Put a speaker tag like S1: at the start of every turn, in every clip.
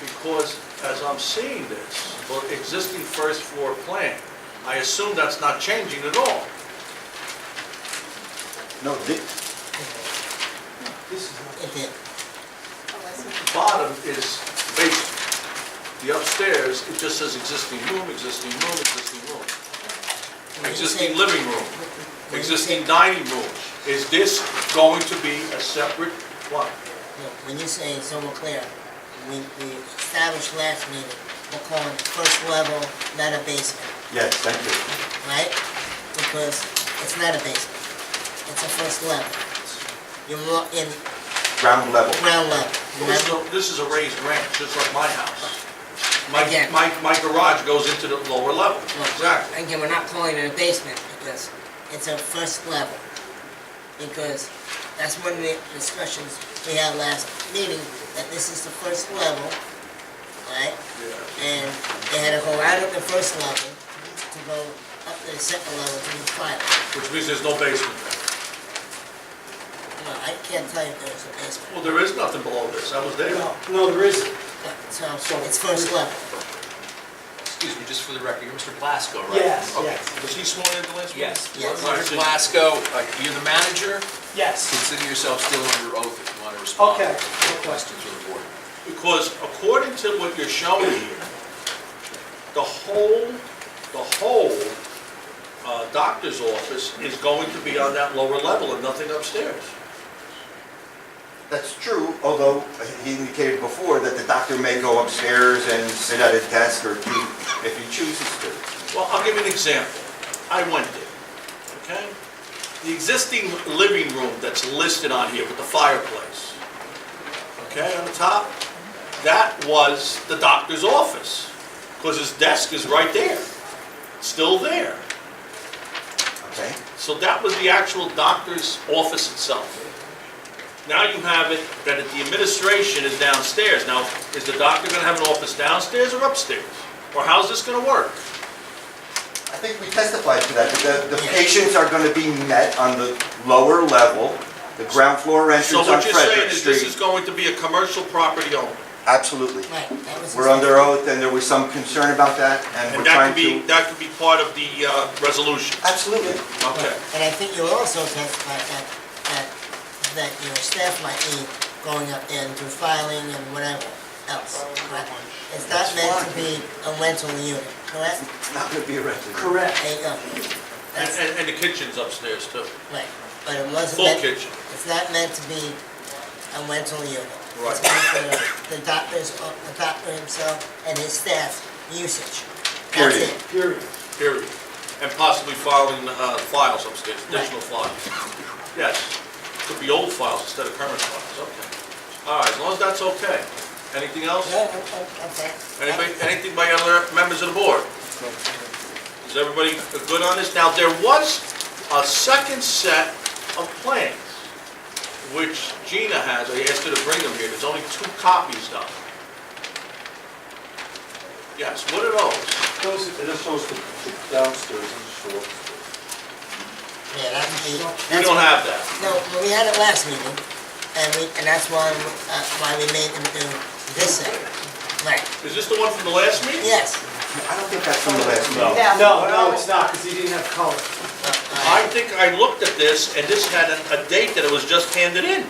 S1: because as I'm seeing this, or existing first floor plan, I assume that's not changing at all.
S2: No, thi-
S1: This is
S3: It did.
S1: the bottom is basement. The upstairs, it just says existing room, existing room, existing room. Existing living room,
S3: When you say-
S1: existing dining room. Is this going to be a separate, what?
S3: Look, When you say it's over clear, we, we established last meeting, we're calling it first level, not a basement,
S2: yes, thank you.
S3: right? Because it's not a basement, it's a first level. You're more in
S2: Ground level.
S3: ground level.
S1: This is a- this is a raised ranch, just like my house. My,
S3: Again.
S1: my, my garage goes into the lower level.
S3: Look, Again, we're not calling it a basement because it's a first level. Because that's one of the discussions we had last meeting, that this is the first level, right?
S1: Yeah.
S3: and they had to go out of the first level to go up to the second level to the final.
S1: Which means there's no basement.
S3: No, I can't tell you if there's a basement,
S1: Well, there is nothing below this, I was there.
S4: No, there isn't.
S3: but, so it's first level.
S5: Excuse me, just for the record, you're Mr. Blasco, right?
S4: Yes,
S5: Okay.
S4: yes.
S1: Was he sworn in the last meeting?
S5: Yes.
S3: Yes.
S1: All right,
S5: Mr.
S1: so-
S5: Blasco, uh, you're the manager,
S4: Yes.
S5: consider yourself still under oath if you want to respond.
S4: Okay.
S5: to the Questions of the board.
S1: Because according to what you're showing here, the whole, the whole uh, doctor's office is going to be on that lower level and nothing upstairs.
S2: That's true, although uh, he indicated before that the doctor may go upstairs and sit at his desk or do, if he chooses to.
S1: Well, I'll give you an example. I went there, okay? The existing living room that's listed on here with the fireplace, okay, on the top, that was the doctor's office, because his desk is right there, still there.
S2: Okay?
S1: So that was the actual doctor's office itself. Now you have it that the administration is downstairs. Now, is the doctor gonna have an office downstairs or upstairs? Or how's this gonna work?
S2: I think we testified to that, that the, the patients are gonna be met on the lower level, the ground floor
S1: So
S2: entrance on
S1: what you're saying
S2: Frederick
S1: is this is
S2: Street.
S1: going to be a commercial property only?
S2: Absolutely.
S3: Right, that was.
S2: We're under oath, and there was some concern about that, and we're
S1: And that
S2: trying
S1: could be,
S2: to...
S1: that could be part of the uh, resolution?
S2: Absolutely.
S1: Okay.
S3: And I think you also testified that, that, uh, that your staff might be going up there and do filing and whatever else. right? It's not meant to be a rental unit, correct?
S2: It's not gonna be a residence.
S4: Correct.
S3: There you go.
S1: And,
S3: That's,
S1: and- and the kitchen's upstairs too,
S3: right, but it wasn't
S1: full
S3: meant.
S1: kitchen.
S3: It's not meant to be a rental unit. It's
S1: Right.
S3: meant for the doctors, uh, the doctor himself and his staff usage. That's
S2: Period.
S3: it.
S4: Period.
S1: period. And possibly filing uh, files upstairs, additional files. Yes, could be old files instead of current files, okay. All right, as long as that's okay. Anything else?
S3: No, I'm- I'm- I'm fine.
S1: Anybody, anything by other members of the board? Is everybody good on this? Now, there was a second set of plans, which Gina has, I asked her to bring them here, there's only two copies though. Yes, what are those?
S6: Those, it just shows the the downstairs and the short.
S3: Yeah, that would be.
S1: We
S3: that's-
S1: don't have that.
S3: No, well, we had it last meeting, and we, and that's why, uh, why we made them do this thing. Right,
S1: Is this the one from the last meeting?
S3: yes.
S2: I don't think that's from the last meeting.
S4: No, no, it's not, because he didn't have color.
S3: Uh,
S1: I
S3: uh,
S1: think I looked at this, and this had a, a date that it was just handed in.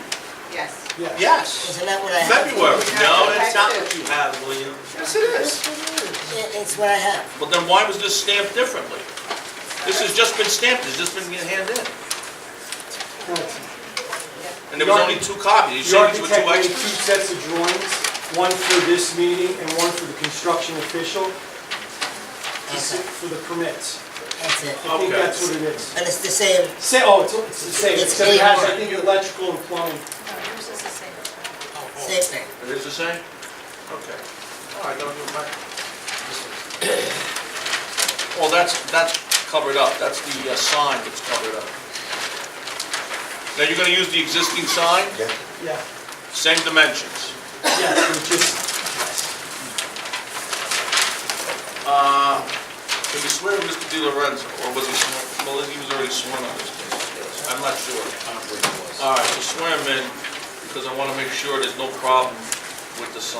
S7: Yes.
S4: Yes.
S1: Yes,
S3: Isn't that what I have?
S1: February. No, that's not what you have, William.
S4: Yes, it is.
S3: It- It's what I have.
S1: But then why was this stamped differently? This has just been stamped, it's just been handed in.
S4: No, it's-
S1: And there was only two copies, you
S4: The
S1: said these were two
S4: architect made two
S1: extras?
S4: sets of drawings, one for this meeting and one for the construction official, to
S3: That's
S4: sit
S3: it,
S4: for the permits.
S3: that's it.
S4: I think
S1: Okay.
S4: that's what it is.
S3: And it's the same,
S4: Say, oh, it's, it's the same,
S3: It's
S4: except it has,
S3: A1.
S4: I think, electrical and plumbing.
S3: same thing.
S1: It is the same? Okay. All right, don't do it back. Well, that's, that's covered up, that's the uh, sign that's covered up. Now, you're gonna use the existing sign,
S2: Yeah.
S4: Yeah,
S1: same dimensions.
S4: yes, it just,
S1: Uh, Can you swear to Mr. Di Lorenzo, or was he sworn, well, he was already sworn on this case? I'm not sure.
S5: I don't believe it was.
S1: All right, so swear him in, because I wanna make sure there's no problem with the sign.